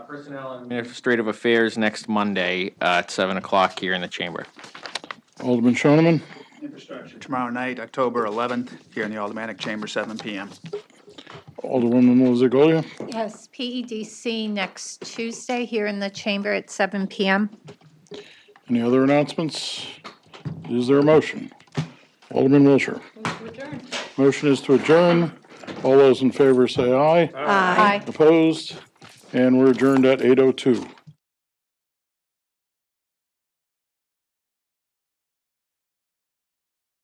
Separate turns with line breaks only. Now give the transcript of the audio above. Personnel and Administrative Affairs next Monday uh, at 7 o'clock here in the chamber.
Alderman Shoneman,
Infrastructure. Tomorrow night, October 11th, here in the Aldermanic Chamber, 7 PM.
Alderwoman Mozagolia,
Yes, PEDC E next Tuesday here in the chamber at 7 PM.
any other announcements? Is there a motion? Alderman Wiltshire. Motion is to adjourn. All those in favor say aye.
Aye.
Opposed? And we're adjourned at 8:02.